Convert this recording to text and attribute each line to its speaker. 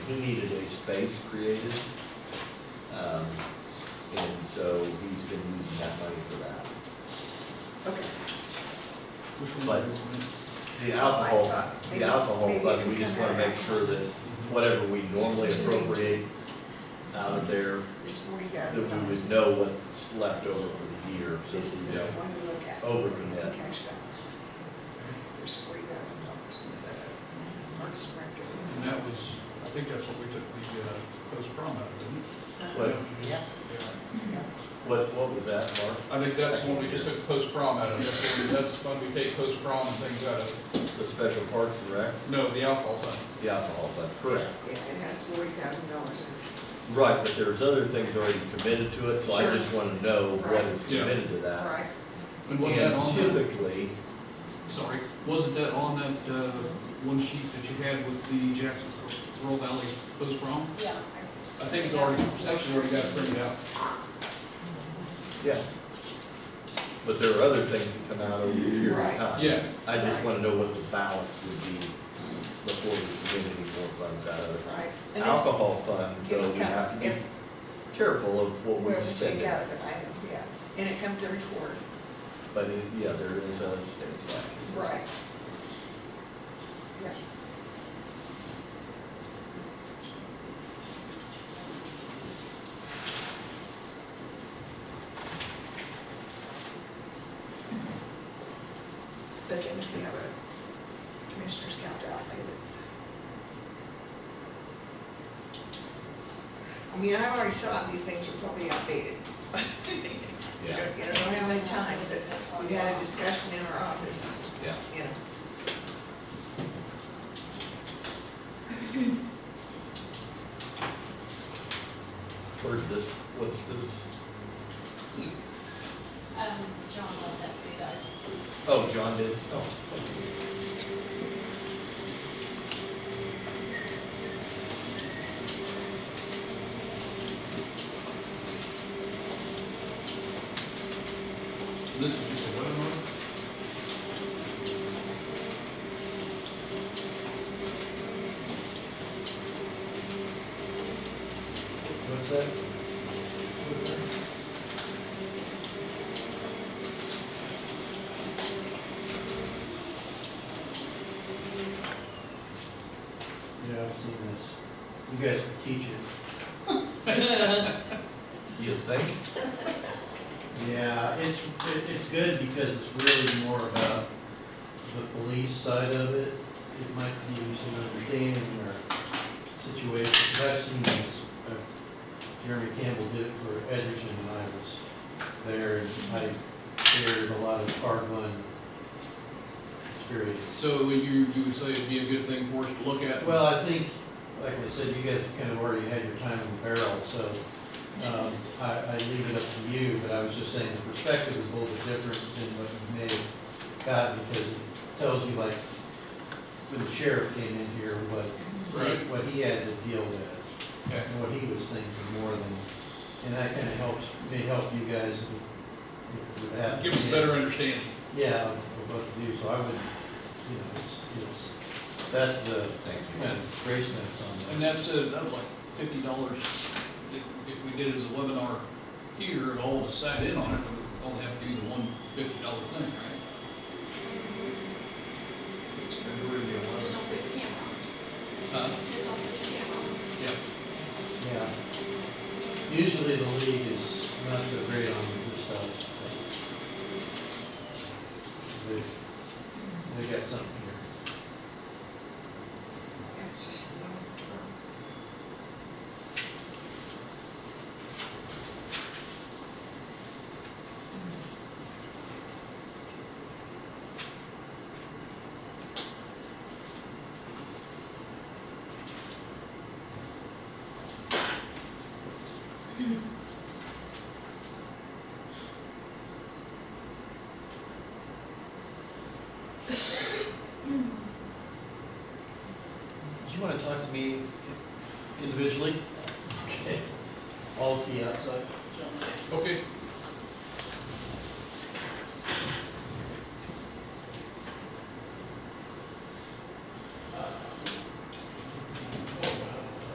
Speaker 1: he needed a space created. Um, and so he's been using that money for that.
Speaker 2: Okay.
Speaker 1: But
Speaker 2: Oh
Speaker 1: the alcohol, the alcohol fund, we just wanna make sure that whatever we normally appropriate out of there,
Speaker 2: There's forty
Speaker 1: that
Speaker 2: thousand.
Speaker 1: we would know what's left over for the year, so
Speaker 2: This is
Speaker 1: we
Speaker 2: the
Speaker 1: don't
Speaker 2: one to look at.
Speaker 1: overcommit.
Speaker 2: Cash balance. There's forty thousand dollars in the Parks Director.
Speaker 3: And that was, I think that's what we took the, uh, post prom out of, didn't
Speaker 1: What?
Speaker 3: it?
Speaker 2: Yeah.
Speaker 3: Yeah.
Speaker 2: Yeah.
Speaker 1: What, what was that, Mark?
Speaker 3: I think that's when we just took post prom out of, that's when, that's when we take post prom and things out of,
Speaker 1: The special parks and rec,
Speaker 3: no, the alcohol fund.
Speaker 1: the alcohol fund, correct?
Speaker 2: Yeah, it has forty thousand dollars in
Speaker 1: Right, but there's other things already committed to it, so I
Speaker 2: Sure.
Speaker 1: just wanna know what
Speaker 2: Right.
Speaker 1: is
Speaker 3: Yeah.
Speaker 1: committed to
Speaker 2: it.
Speaker 1: that.
Speaker 2: Right.
Speaker 3: And wasn't that
Speaker 1: And
Speaker 3: on that,
Speaker 1: typically,
Speaker 3: sorry, wasn't that on that, uh, one sheet that you had with the Jackson Roll Valley post prom?
Speaker 4: Yeah.
Speaker 3: I think it's already, it's actually already got it printed out.
Speaker 1: yeah. But there are other things that come out over the year
Speaker 2: Right.
Speaker 1: of time.
Speaker 3: Yeah.
Speaker 1: I just wanna know what the balance would be before we commit any more funds out of it.
Speaker 2: Right. And this-
Speaker 1: Alcohol fund, though,
Speaker 2: It'll
Speaker 1: we
Speaker 2: come-
Speaker 1: have to be
Speaker 2: it-
Speaker 1: careful of what
Speaker 2: Where
Speaker 1: we
Speaker 2: we
Speaker 1: spend
Speaker 2: take
Speaker 1: it.
Speaker 2: out of it, I know, yeah. And it comes every quarter.
Speaker 1: But it, yeah, there is a,
Speaker 2: Right. Yeah. But then if we have a commissioner's count outlay that's. I mean, I always saw these things are probably outdated. You
Speaker 1: yeah,
Speaker 2: don't, you don't know how many times that we've had a discussion in our office,
Speaker 1: yeah.
Speaker 2: you know.
Speaker 1: Where's this, what's this?
Speaker 4: Um, John left that for you guys.
Speaker 1: Oh, John did, oh, thank you.
Speaker 3: This is just a webinar?
Speaker 1: What's that?
Speaker 5: Yeah, I've seen this. You guys can teach it.
Speaker 1: You think?
Speaker 5: Yeah, it's, it- it's good because it's really more about the police side of it. It might give you some understanding or situation, 'Cause I've seen this. uh, Jeremy Campbell did it for Edgerton when I was there, and I shared a lot of hard won experience.
Speaker 3: So you, you would say it'd be a good thing for us to look at?
Speaker 5: Well, I think, like I said, you guys kind of already had your time in the barrel, so um, I, I leave it up to you, but I was just saying the perspective is a little bit different than what you may have gotten, because it tells you like, when the sheriff came in here, what,
Speaker 3: Right.
Speaker 5: what he had to deal with
Speaker 3: Okay.
Speaker 5: and what he was thinking more than, and that kind of helps, may help you guys with- with that.
Speaker 3: Give us a better understanding.
Speaker 5: Yeah, of what to do, so I would, you know, it's, it's, that's the
Speaker 1: Thank
Speaker 5: kind of grace notes on this.
Speaker 3: And that's, uh, that was like fifty dollars, if, if we did it as a webinar here and all of us sat in on it, we would only have to do the one fifty dollar thing, right? It's February the
Speaker 4: Just
Speaker 3: 11th.
Speaker 4: don't put your camera on.
Speaker 3: Huh?
Speaker 4: Just don't put your camera on.
Speaker 3: yeah,
Speaker 5: Yeah. Usually the league is not so great on this stuff. but They, they got something here.
Speaker 2: That's just one term. Mm.
Speaker 5: Do you wanna talk to me individually? Okay. All of you outside?
Speaker 3: okay,